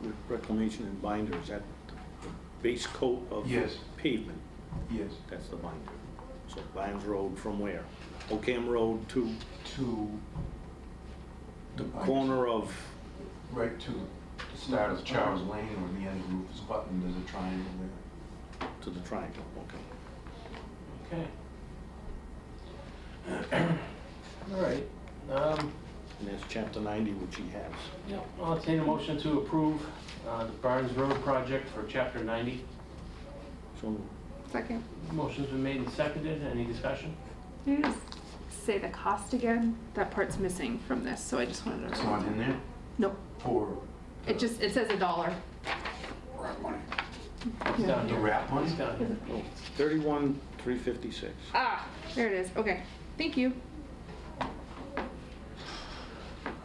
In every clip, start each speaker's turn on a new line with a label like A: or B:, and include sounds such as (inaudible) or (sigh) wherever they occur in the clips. A: with reclamation and binder, is that the base coat of
B: Yes.
A: pavement?
B: Yes,
A: That's the binder. So Vines Road from where? Ocam Road to
B: to.
A: the corner of,
B: Right to the start of Charles Lane where the end of Rufus Button, there's a triangle there.
A: to the triangle, okay.
C: Okay. (clears throat) All right, um,
A: And that's chapter 90, which he has.
C: yeah, I'll entertain a motion to approve, uh, the Barnes Road project for chapter ninety.
A: So
D: Second.
C: Motion's been made and seconded, any discussion?
D: Can you just say the cost again? That part's missing from this, so I just wanted
B: It's
D: to.
B: not in there
D: Nope.
B: for
D: It just, it says a dollar.
B: rat money.
C: It's down
B: The
C: here,
B: rat money?
C: it's down here.
A: oh, 31, 356.
D: Ah, there it is. Okay. Thank you.
C: All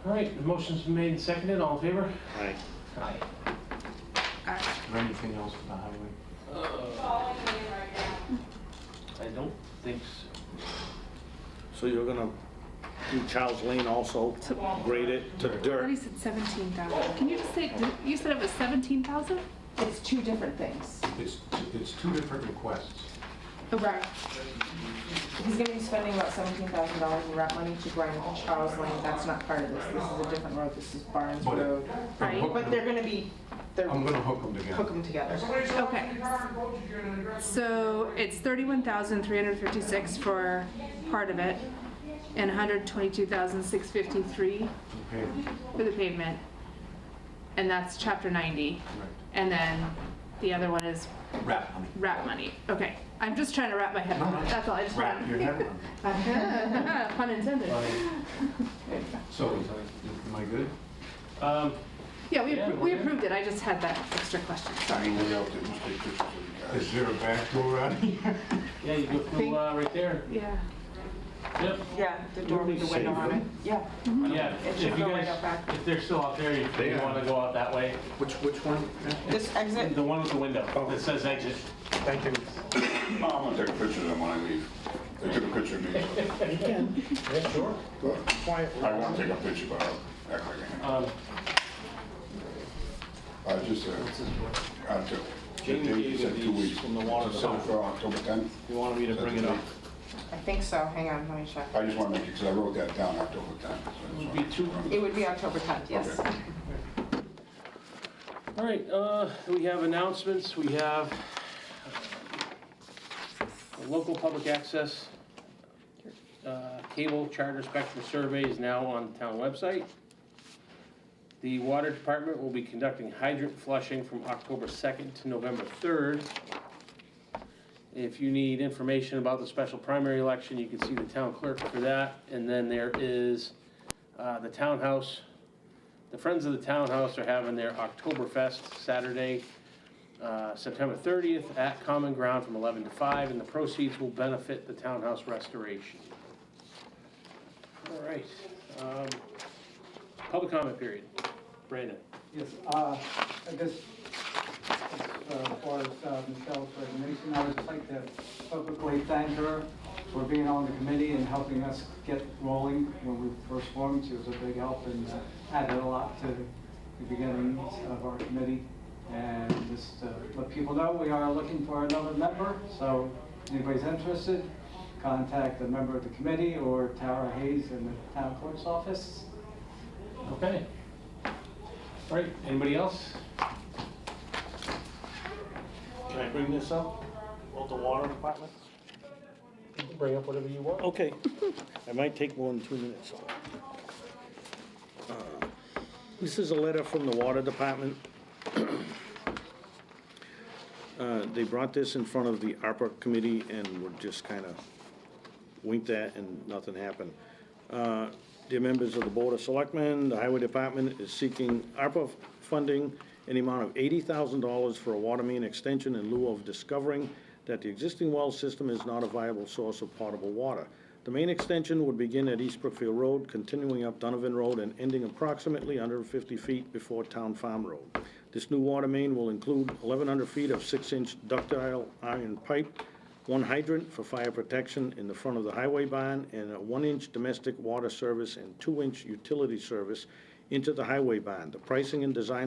C: right, the motion's been made and seconded, all in favor?
A: Aye.
C: Aye.
D: Ah,
B: Is there anything else for the highway?
C: I don't think so.
A: So you're gonna do Charles Lane also, grade it to
D: I thought he
A: dirt?
D: said seventeen thousand. Can you just say, did- you said it was seventeen thousand?
E: It's two different things.
B: It's, t- it's two different requests.
D: Okay.
E: He's gonna be spending about seventeen thousand dollars in rent money to grind Charles Lane, that's not part of this, this is a different road, this is Barnes
B: But-
E: Road.
D: Right,
B: hook
E: But they're
B: them-
E: gonna be, they're,
B: I'm gonna hook them
E: hook
B: together.
E: them together.
D: Okay. So it's thirty-one thousand three hundred fifty-six for part of it, and one hundred twenty-two thousand six fifty-three
B: Okay,
D: for the pavement, and that's chapter ninety.
B: right.
D: And then the other one is
B: Rat money.
D: rat money. Okay, I'm just trying to wrap my head around it. That's all. I just
B: Rat your
D: want.
B: head on.
D: (laughs) Pun intended.
B: So, am I good?
C: Um,
D: Yeah, we
C: Yeah,
D: appro-
C: we're
D: we
C: good.
D: approved it. I just had that extra question. Sorry.
B: Is there a back door out here?
C: yeah, you go through, uh, right there,
D: Yeah.
C: yep.
E: Yeah, the door with the window on it, yeah.
C: Yeah,
E: It
C: if
E: should
C: you
E: go right
C: guys,
E: out back.
C: if they're still out there, if
B: They
C: you
B: are.
C: wanna go out that way,
B: Which, which one?
E: This exit,
C: the one with the window
B: Oh.
C: that says exit.
B: Thank you.
F: No, I'm gonna take a picture of them when I leave. They took a picture of me.
C: Yeah, sure.
F: I want to take a picture, but I'll act like I
C: Um,
F: am. I just, uh, I took.
A: Jamie
F: they
A: gave
F: said
A: you
F: two
A: these
F: weeks.
A: from the water
F: So
A: department.
F: for October 10th,
A: You wanted me to bring it up?
E: I think so, hang on, let me check.
F: I just want to make it, because I wrote that down, October 10th. so I just
C: would be
F: wanna-
C: two,
E: It would be October tenth, yes.
F: Okay.
C: All right, uh, we have announcements, we have uh, local public access, uh, cable charter spectrum survey is now on the town website. The water department will be conducting hydrant flushing from October 2nd to November 3rd. If you need information about the special primary election, you can see the town clerk for that. And then there is uh, the townhouse the Friends of the Townhouse are having their Oktoberfest Saturday, uh, September 30th at Common Ground from 11 to 5, and the proceeds will benefit the townhouse restoration. All right. um, Public comment period. Brandon.
G: Yes, uh, I guess, as far as uh, Michelle for Mason, I would just like to publicly thank her for being on the committee and helping us get rolling when we first formed. She was a big help and uh, added a lot to the beginnings of our committee. And just to let people know, we are looking for another member, so anybody's interested, contact a member of the committee or Tara Hayes in the town clerk's office.
C: Okay. All right, anybody else?
A: Can I bring this up? Well, the water department?
C: Bring up whatever you want.
A: Okay. (laughs) I might take more than two minutes. Uh, This is a letter from the water department. (clears throat) Uh, They brought this in front of the ARPA committee and were just kind of winked at and nothing happened. Uh, Dear members of the Board of Selectmen, the Highway Department is seeking ARPA funding in the amount of $80,000 for a water main extension in lieu of discovering that the existing well system is not a viable source of potable water. The main extension would begin at East Brookfield Road, continuing up Donovan Road and ending approximately 150 feet before Town Farm Road. This new water main will include 1,100 feet of 6-inch ductile iron pipe, one hydrant for fire protection in the front of the highway barn, and a one-inch domestic water service and two-inch utility service into the highway barn. The pricing and design